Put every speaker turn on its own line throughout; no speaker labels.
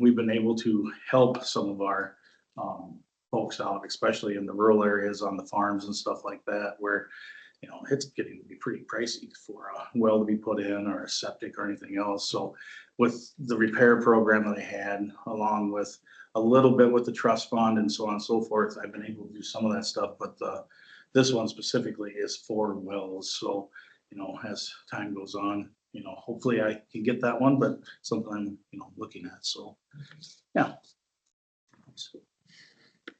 we've been able to help some of our um, folks out, especially in the rural areas on the farms and stuff like that, where, you know, it's getting to be pretty pricey for a well to be put in or a septic or anything else. So with the repair program that I had, along with a little bit with the trust fund and so on and so forth, I've been able to do some of that stuff, but the, this one specifically is for wells. So, you know, as time goes on, you know, hopefully I can get that one, but something I'm, you know, looking at, so, yeah.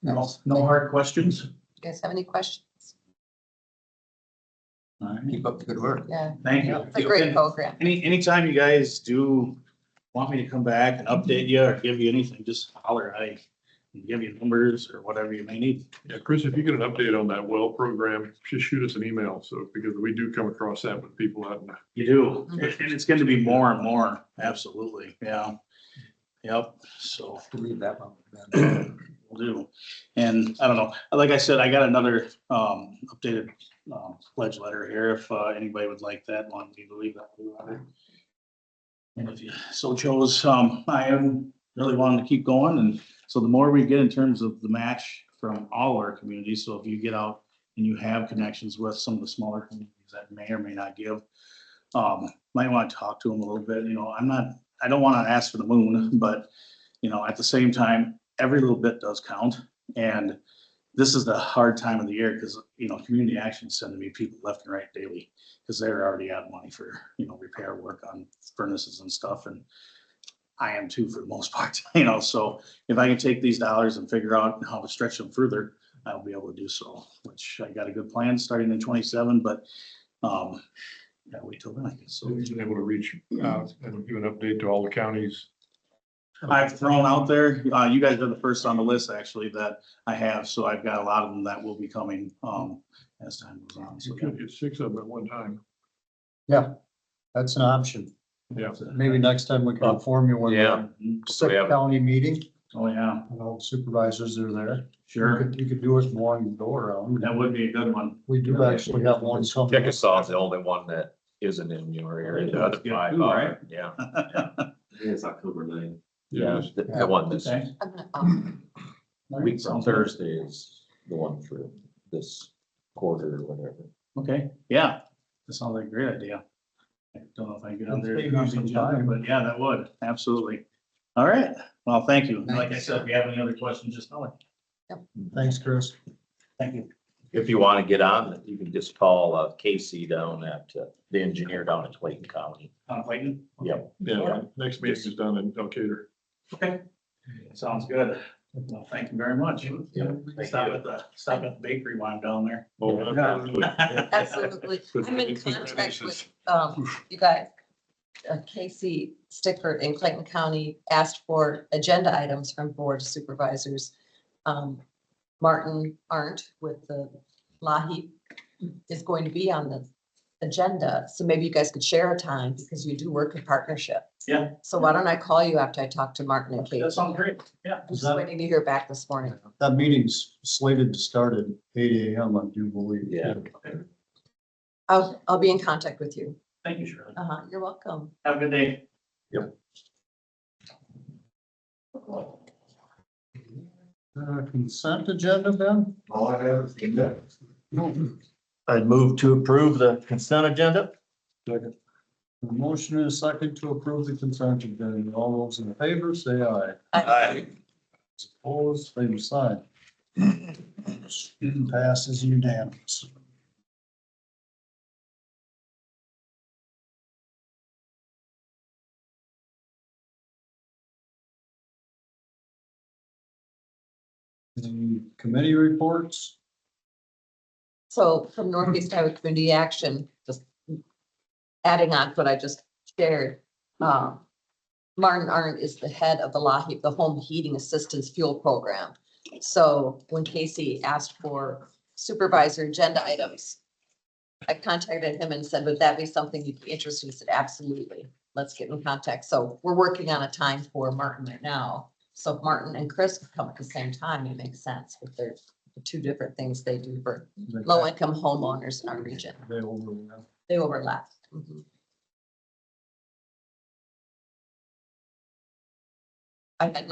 No, no hard questions?
You guys have any questions?
All right.
Keep up the good work.
Yeah,
Thank you.
it's a great program.
Any, anytime you guys do want me to come back and update you or give you anything, just holler. I can give you numbers or whatever you may need.
Yeah, Chris, if you get an update on that well program, just shoot us an email. So because we do come across that with people out in
You do. And it's going to be more and more. Absolutely. Yeah. Yep. So.
To leave that one. with them.
Will do. And I don't know, like I said, I got another um updated um pledge letter here if uh anybody would like that one, we believe that. blue letter. And if you so chose, um I am really wanting to keep going and so the more we get in terms of the match from all our communities, so if you get out and you have connections with some of the smaller communities that may or may not give, um might want to talk to them a little bit, you know, I'm not, I don't want to ask for the moon, but you know, at the same time, every little bit does count. And this is the hard time of the year because, you know, community actions send to me people left and right daily because they're already out of money for, you know, repair work on furnaces and stuff. And I am too for the most part, you know, so if I can take these dollars and figure out how to stretch them further, I'll be able to do so, which I got a good plan starting in twenty-seven, but um, gotta wait till then, I guess.
So
So
we've been able to reach out and give an update to all the counties.
I've thrown out there, uh, you guys are the first on the list actually that I have, so I've got a lot of them that will be coming, um, as time goes on. So
You could get six of them at one time.
That's an option.
Yeah.
Maybe next time we can inform you when
Yeah.
the sick county meeting,
Mm-hmm. Oh, yeah,
and all the supervisors are there. You
sure.
could- You could do it in one go around.
That would be a good one.
We do actually have one. coming.
Chickasaw is the only one that isn't in your area. The other
Yeah,
five
too,
are,
right?
yeah.
It's October ninth.
Yeah, the, the one this
Okay.
I'm gonna, um,
week from
Sounds good.
Thursday is the one for this quarter or whatever.
Okay, yeah, that sounds like a great idea. I don't know if I can get on there,
Let's figure out some time.
but yeah, that would, absolutely. All right, well, thank you. Like I
Thanks.
said, if you have any other questions, just tell me.
Thanks, Chris.
Thank you.
If you want to get on, you can just call uh, Casey down at, uh, the engineer down at Clayton County.
Uh, Clayton?
Yeah.
Yeah, next meeting is done in Decatur.
Okay, sounds good. Well, thank you very much. Stop at the, stop at the bakery while I'm down there.
Oh, absolutely.
absolutely. I'm in contract with, um, you guys. Uh, Casey Stickford in Clayton County asked for agenda items from board supervisors. Um, Martin Arndt with the Lahee is going to be on the agenda, so maybe you guys could share a time because you do work in partnership.
Yeah.
So why don't I call you after I talk to Martin and
That
Casey?
sounds great, yeah.
I'm just waiting to hear back this morning.
That meeting's slated to start at eight AM, I do believe.
Yeah.
I'll, I'll be in contact with you.
Thank you, Shirley.
Uh-huh, you're welcome.
Have a good day.
Uh, Consent agenda, Ben?
All I have is the index.
I'd move to approve the consent agenda.
A Motion and a second to approve the consent agenda. All those in favor, say aye.
I-
Opposed, same sign. Passes unanimous. Any committee reports?
So from Northeast Iowa Community Action, just adding on to what I just shared. uh, Martin Arndt is the head of the LAHEAP, the Home Heating Assistance Fuel Program. So when Casey asked for supervisor agenda items, I contacted him and said, would that be something you'd be interested in? He said, absolutely. Let's get in contact. So we're working on a time for Martin right now. So if Martin and Chris could come at the same time, it makes sense, but they're two different things they do for low income homeowners in our region.
They overlap.
They overlap. I had